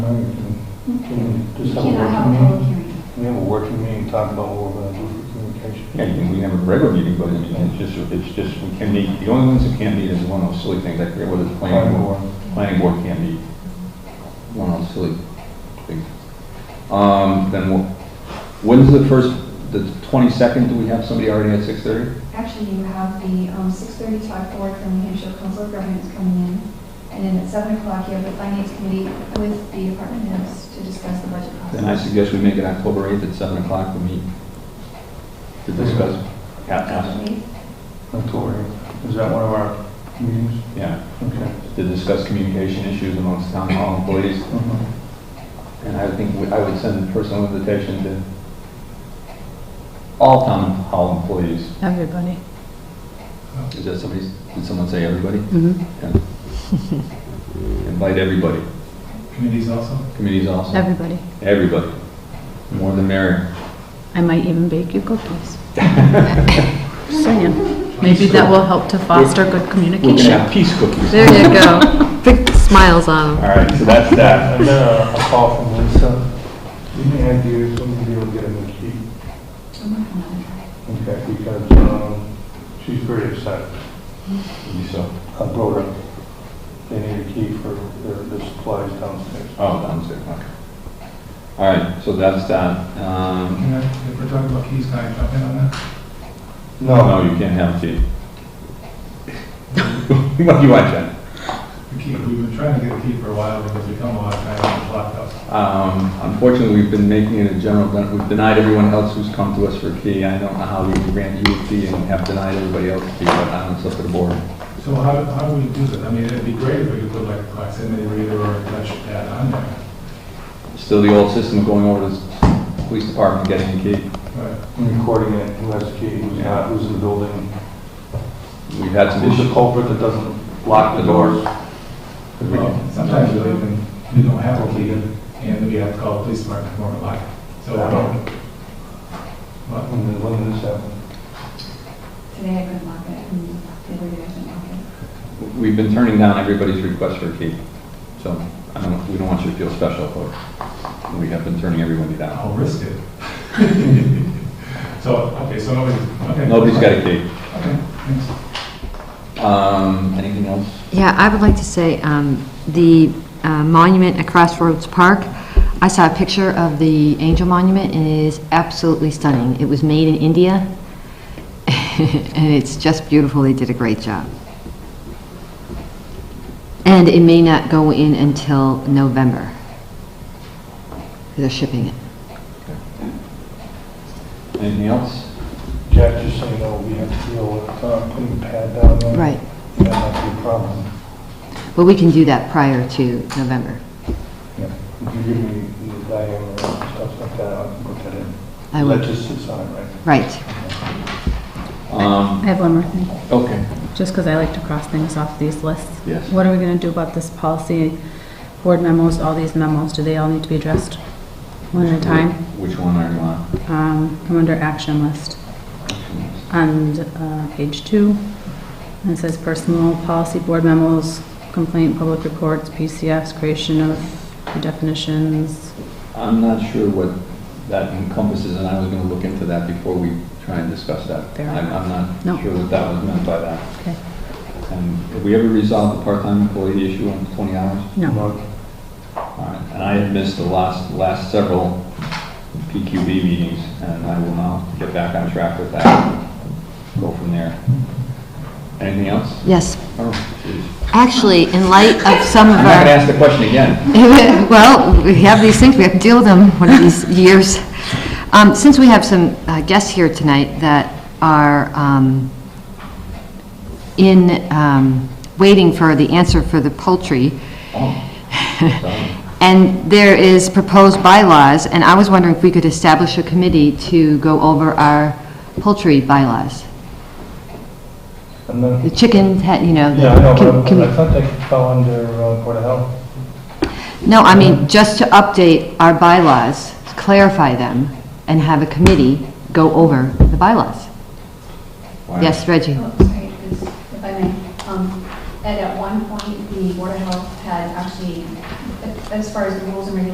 January to, can we do You some cannot working have a Mm-hmm. public meeting? hearing. We have a working meeting, talk about what we're gonna do for communication. Yeah, you can- we have a regular meeting, but it- it's just, it's just, we can meet, the only ones that can't meet is one of those silly things, I forget whether it's planning board, planning board can't meet. One of those silly things. Um, then we'll, when's the first, the twenty-second, do we have somebody already at six-thirty? Actually, you have the um, 6:30 talk board from New Hampshire Council of Governments coming in, and then at 7 o'clock, you have the Finance Committee with the department heads to discuss the budget Then I process. suggest we make it October eighth at seven o'clock, we meet to discuss. Yeah, yeah, Actually, October, is that one of our meetings? yeah, Okay. to discuss communication issues amongst town hall employees. Mhm. And I think we- I would send a personal invitation to all town hall employees. Everybody. Is that somebody, did someone say everybody? Mhm. Invite everybody, Committees also? committees also, Everybody. everybody. More than merrier. I might even bake you cookies. Just Saying. Maybe that will help to foster good We're gonna communication. have peace cookies. There you go. Big smiles on All them. right, so that's that. And then a a call from Lisa, any ideas when we'll be able to get a new key? I'm working on it. Okay, because, um, she's very upset. You so, I brought her, they need a key for their, their supplies downstairs. oh, downstairs, okay. All right, so that's that. Um, Can I, if we're talking about keys, can I jump in on that? No, you can't have tea. What do you want, Jen? The key, we've been trying to get a key for a while because we come a lot of times in the blockhouse. Um, Unfortunately, we've been making it a general, ben- we've denied everyone else who's come to us for a key. I don't know how we can grant you a key and have denied everybody else a key, but I don't, it's up to the board. So how, do- how do we do that? I mean, it'd be great if we could put like a proximity reader or a touch pad on there. Still the old system of going over to the police department and getting a key. But Recording it, who has the key, who's not, who's in the building, We've had some who's the issues. culprit that doesn't lock the doors. well, sometimes we don't even, we don't have a key and we have to call the police department for a lock. So, well, When did- when did this happen? Today I couldn't lock it, and the other day I couldn't lock it. We've been turning down everybody's request for a key. So I don't, we don't want you to feel special, but we have been turning everybody down. I'll risk it. So, okay, so nobody's, okay. Nobody's got a key. Okay, thanks. Um, Anything else? Yeah, I would like to say, um, the uh, monument at Crossroads Park, I saw a picture of the angel monument, and it is absolutely stunning. It was made in India, and it's just beautiful. They did a great job. And it may not go in until November. They're shipping it. Anything else? Jack just saying, oh, we have to deal with, uh, putting a pad down there. Right. That might be a problem. But we can do that prior to November. If you give me the diagram and stuff like that, I can put that in. I will. That just sits on it, right? Right. Um, I have one more thing, Okay. just because I like to cross things off these lists. Yes. What are we going to do about this policy, board memos, all these memos? Do they all need to be addressed one at a time? Which one are you on? Um, Come under action list. on uh, page two. And it says personal policy board memos, complaint, public reports, PCFs, creation of definitions. I'm not sure what that encompasses, and I was going to look into that before we try and discuss that. Fair I'm I'm No. not sure what that was meant by that. Okay. And have we ever resolved the part-time employee issue on 20 hours? No. Mark, All right. And I had missed the last, last several PQB meetings, and I will now get back on track with that. Go from there. Anything else? Yes. Oh, geez. Actually, in light of some of I'm not going to our, ask the question again. well, we have these things, we have to deal with them one of these years. Um, Since we have some uh, guests here tonight that are um, in, um, waiting for the answer for the poultry, Oh. and there is proposed bylaws, and I was wondering if we could establish a committee to go over our poultry bylaws. And then, The chicken, had- you know. the- yeah, I know, can- but can- I thought they fell under uh, Board of Health. No, I mean, just to update our bylaws, clarify them, and have a committee go over the bylaws. Why- Yes, Reggie? Oh, sorry, because if I may, um, and at one point, the Board of Health had actually as far as the rules and regulations